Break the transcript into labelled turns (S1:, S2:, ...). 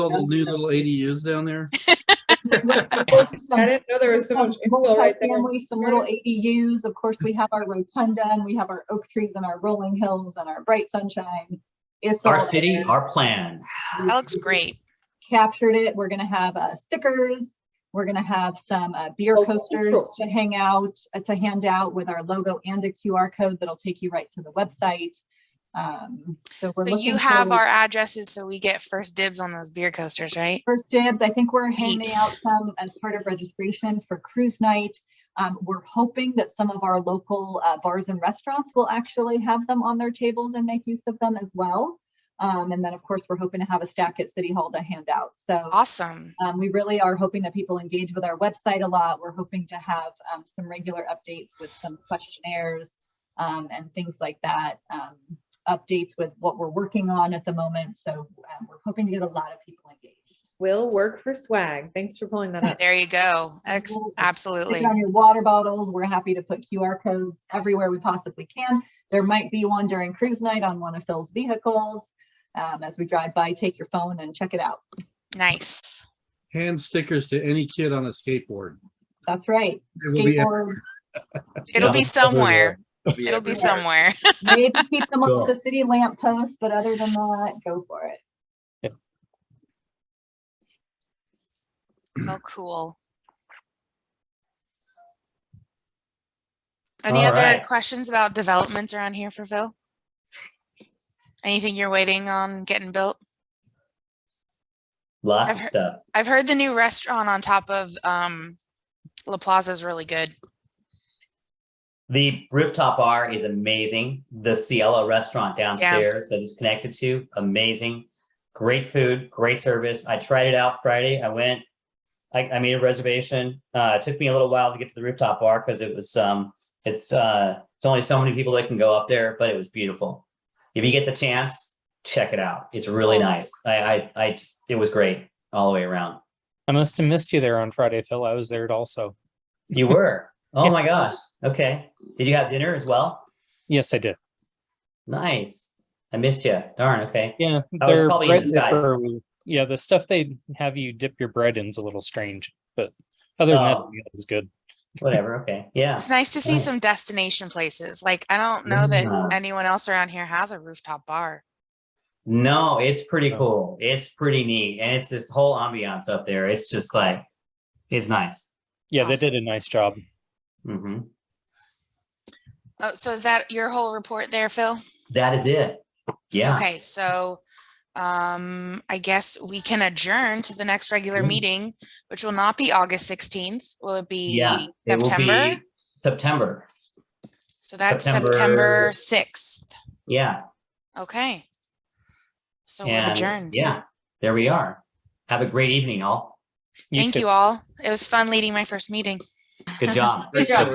S1: all the new little ADUs down there?
S2: There's some-
S3: I didn't know there was so
S2: some
S3: much info right there.
S2: multifamily, Some little ADUs, of course, we have our rotunda and we have our oak trees and our rolling hills and our bright sunshine. It's.
S4: Our
S2: all
S4: city,
S2: there.
S4: our plan.
S5: That looks great.
S2: Captured it. We're gonna have uh, stickers. We're gonna have some uh, beer
S3: Oh,
S2: coasters
S3: cool.
S2: to hang out, uh, to hand out with our logo and a QR code that'll take you right to the website. Um, So we're
S5: So you
S2: looking
S5: have
S2: for-
S5: our addresses, so we get first dibs on those beer coasters, right?
S2: First dibs, I think we're handing
S5: Thanks.
S2: out some as part of registration for cruise night. Um, we're hoping that some of our local uh, bars and restaurants will actually have them on their tables and make use of them as well. Um, and then, of course, we're hoping to have a stack at City Hall to hand out. So
S5: Awesome.
S2: um, we really are hoping that people engage with our website a lot. We're hoping to have um, some regular updates with some questionnaires um, and things like that. Um, updates with what we're working on at the moment. So um, we're hoping to get a lot of people engaged.
S3: Will work for swag. Thanks for pulling that up.
S5: There you go. Ex-
S2: Absolutely. Stick
S5: Absolutely.
S2: it on your water bottles. We're happy to put QR codes everywhere we possibly can. There might be one during cruise night on one of Phil's vehicles. Um, as we drive by, take your phone and check it out.
S5: Nice.
S1: Hand stickers to any kid on a skateboard.
S2: That's right.
S1: It will be-
S2: Skateboards,
S5: It'll
S1: Yeah.
S5: be somewhere.
S1: it'll be
S5: It'll be
S1: everywhere.
S5: somewhere.
S2: maybe keep them up
S6: Cool.
S2: to the city lamp post, but other than that, go for it.
S5: Oh, cool. Any
S6: All
S5: other
S6: right.
S5: questions about developments around here for Phil? Anything you're waiting on getting built?
S4: Lots
S5: I've
S4: of
S5: heard-
S4: stuff.
S5: I've heard the new restaurant on top of um La Plaza is really good.
S4: The rooftop bar is amazing. The Cielo restaurant downstairs that it's connected to, amazing. Great food, great service. I tried it out Friday. I went, I, I made a reservation. Uh, it took me a little while to get to the rooftop bar because it was, um, it's, uh, it's only so many people that can go up there, but it was beautiful. If you get the chance, check it out. It's really nice. I, I, I just, it was great all the way around.
S6: I must have missed you there on Friday, Phil. I was there also.
S4: You were. Oh
S6: Yeah.
S4: my gosh. Okay. Did you have dinner as well?
S6: Yes, I did.
S4: Nice. I missed you. Darn. Okay.
S6: Yeah,
S4: I was
S6: their
S4: probably in
S6: bread
S4: disguise.
S6: dipper was- Yeah, the stuff they have you dip your bread in is a little strange, but other than that,
S4: Oh.
S6: the meal was good.
S4: Whatever. Okay. Yeah.
S5: It's nice to see
S4: Right.
S5: some destination places. Like I don't know
S4: Yeah.
S5: that anyone else around here has a rooftop bar.
S4: No, it's pretty
S6: Oh.
S4: cool. It's pretty neat. And it's this whole ambiance up there. It's just like, it's nice.
S6: Yeah, they
S5: Awesome.
S6: did a nice job.
S4: hmm
S5: Oh, so is that your whole report there, Phil?
S4: That is it. Yeah.
S5: Okay, so um I guess we can adjourn to the next regular
S4: Mm.
S5: meeting, which will not be August 16th. Will it be
S4: Yeah. It will
S5: September?
S4: be September.
S5: So that's September
S4: September-
S5: 6th.
S4: Yeah.
S5: Okay. So we're
S4: and
S5: adjourned.
S4: yeah, there we are. Have a great evening, all.
S5: Thank
S6: too.
S5: you all. It was fun leading my first meeting.
S4: Good job.
S1: Good job.